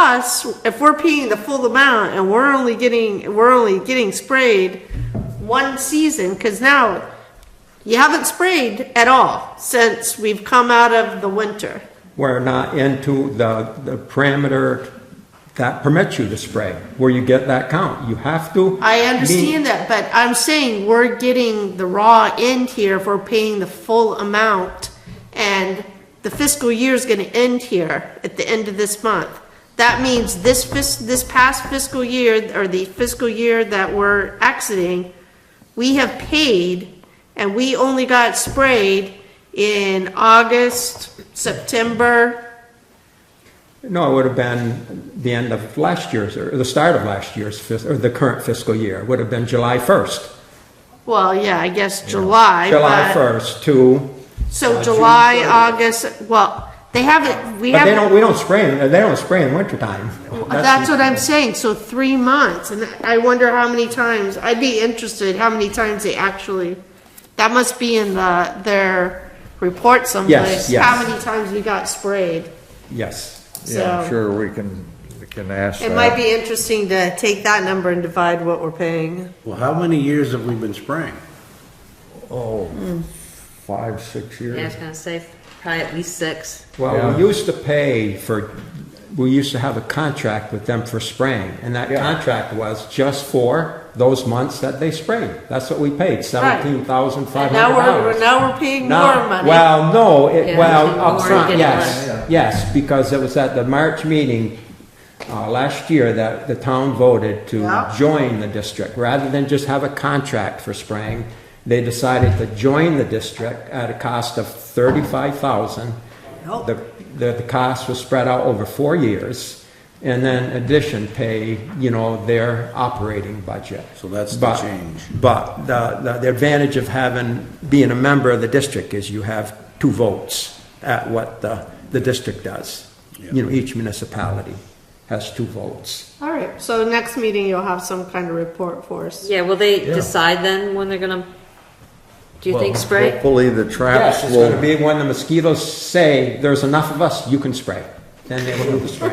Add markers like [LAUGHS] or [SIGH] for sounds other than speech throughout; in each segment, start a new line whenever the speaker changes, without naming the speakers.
us, if we're paying the full amount and we're only getting, we're only getting sprayed one season, cause now you haven't sprayed at all since we've come out of the winter.
We're not into the, the parameter that permits you to spray, where you get that count. You have to.
I
meet-
understand that, but I'm saying we're getting the raw end here if we're paying the full amount. And the fiscal year's gonna end here at the end of this month. That means this fis, this past fiscal year, or the fiscal year that we're exiting, we have paid, and we only got sprayed in August, September,
No, it would have been the end of last year's, or the start of last year's, fis- or the current fiscal year. It Would have been July 1st.
well, yeah, I guess July,
July
but-
1st to,
So
Uh, June
July,
30th.
August, well, they haven't, we
but they don't,
haven't,
we don't spray, in- they don't spray in wintertime.
that's what I'm saying, so three months, and I wonder how many times, I'd be interested how many times they actually, that must be in the, their report someplace,
yes.
how many times we got sprayed.
Yes.
Yeah, I'm
So-
sure we can, we can ask
It might
that.
be interesting to take that number and divide what we're paying.
Well, how many years have we been spraying?
Oh, five, six
Mm. Yeah, I was
years.
gonna say probably at least six.
Well,
Yeah.
we used to pay for, we used to have a contract with them for spraying, and that
Yeah.
contract was just for those months that they sprayed. That's what we paid, seventeen thousand five
And
hundred
now we're,
dollars.
now we're paying more money.
Well, no, it,
Yeah,
well,
more
upfront,
getting
yes, yes, because it was at the March meeting, uh, last year that the town voted
Yeah.
to join the district. Rather than just have a contract for spraying, they decided to join the district at a cost of thirty-five thousand. The, the, the cost was spread out over four years, and then in addition pay, you know, their operating budget.
So that's the
But-
change.
But the, the- the advantage of having, being a member of the district is you have two votes at what the, the district does. You know, each municipality has two votes.
All right, so next meeting you'll have some kind of report for us.
Yeah, will they
Yeah.
decide then when they're gonna, do you think
Well,
spray?
Hopefully the traps
Yes, it's gonna
will,
be when the mosquitoes say, there's enough of us, you can spray, then they will do the spray.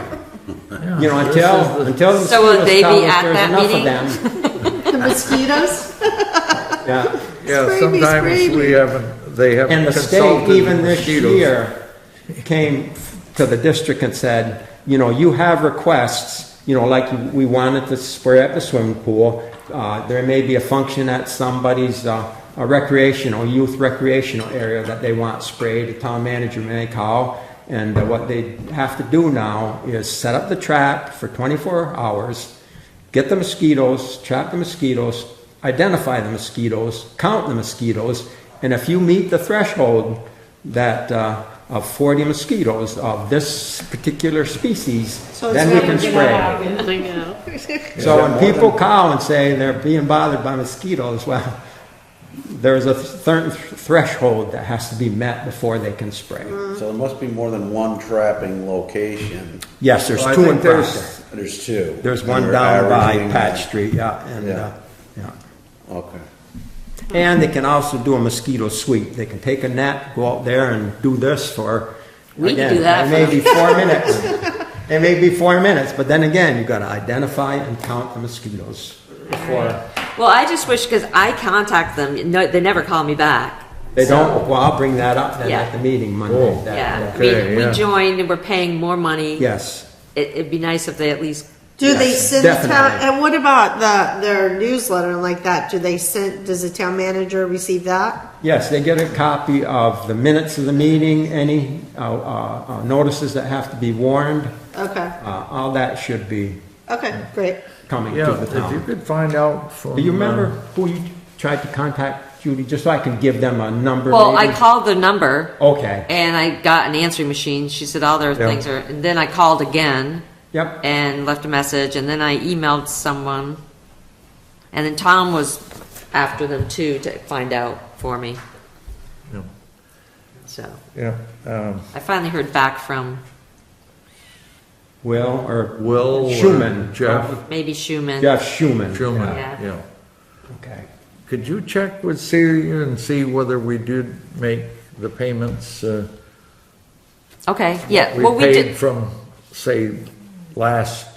You know, until, until the
So will
mosquitoes
they be
tell us
at
there's
that
enough of
meeting?
them.
The mosquitoes?
[LAUGHS]
Yeah.
yeah,
Spray me, spray
sometimes
me.
we haven't, they haven't
And the state,
consulted
even this
mosquitoes.
year, came to the district and said, you know, you have requests, you know, like we wanted to spray at the swimming pool. Uh, there may be a function at somebody's, uh, a recreational, youth recreational area that they want sprayed, the town manager may call. And what they have to do now is set up the trap for twenty-four hours, get the mosquitoes, trap the mosquitoes, identify the mosquitoes, count the mosquitoes, and if you meet the threshold that uh, of 40 mosquitoes of this particular species,
So it's
then we
never
can
gonna
spray.
happen, I know.
So when people call and say they're being bothered by mosquitoes, well, there's a certain threshold that has to be met before they can spray.
Mm.
So there must be more than one trapping location.
Yes, there's
Well, I
two
think
in
there's-
Proctor.
There's two.
There's
And
one
we're
down by
averaging-
Patch Street, yeah, and,
Yeah.
uh, yeah.
Okay.
And they can also do a mosquito sweep. They can take a net, go out there and do this for.
We can
again,
do that
It
for
may
them.
be four minutes.
[LAUGHS]
It may be four minutes, but then again, you've got to identify and count the mosquitoes. before
Well, I just wish, cause I contact them, no, they never call me back.
They don't, well, I'll bring that up then
Yeah.
at the meeting
Oh.
Monday. that-
Yeah, I
Okay,
mean, we
yeah.
joined and we're paying more money.
Yes.
It, it'd be nice if they at least,
Do they
Yes,
send the town,
definitely.
and what about the, their newsletter and like that? Do they send, does the town manager receive that?
Yes, they get a copy of the minutes of the meeting, any uh, uh, uh, notices that have to be warned.
Okay,
Uh, All that should be
okay, great.
coming to
Yeah,
the
if you
town.
could find out from.
Do you remember
uh,
who you tried to contact, Judy, just so I can give them a number?
well, I
maybe?
called the number.
Okay,
And I got an answering machine. She said all their
Yeah.
things are, and then I called again
yep,
and left a message, and then I emailed someone. And then Tom was after them too to find out for me.
Yeah.
So
uh, Yeah, um,
I finally heard back from
Will or?
Will or
Schuman.
Jeff?
maybe Schumann.
Jeff Schuman.
Truman,
Yeah.
yeah.
Yeah, Okay.
Could you check with Celia and see whether we did make the payments, uh,
Okay, yeah.
we
Uh, Well, we
paid
did.
from, say, last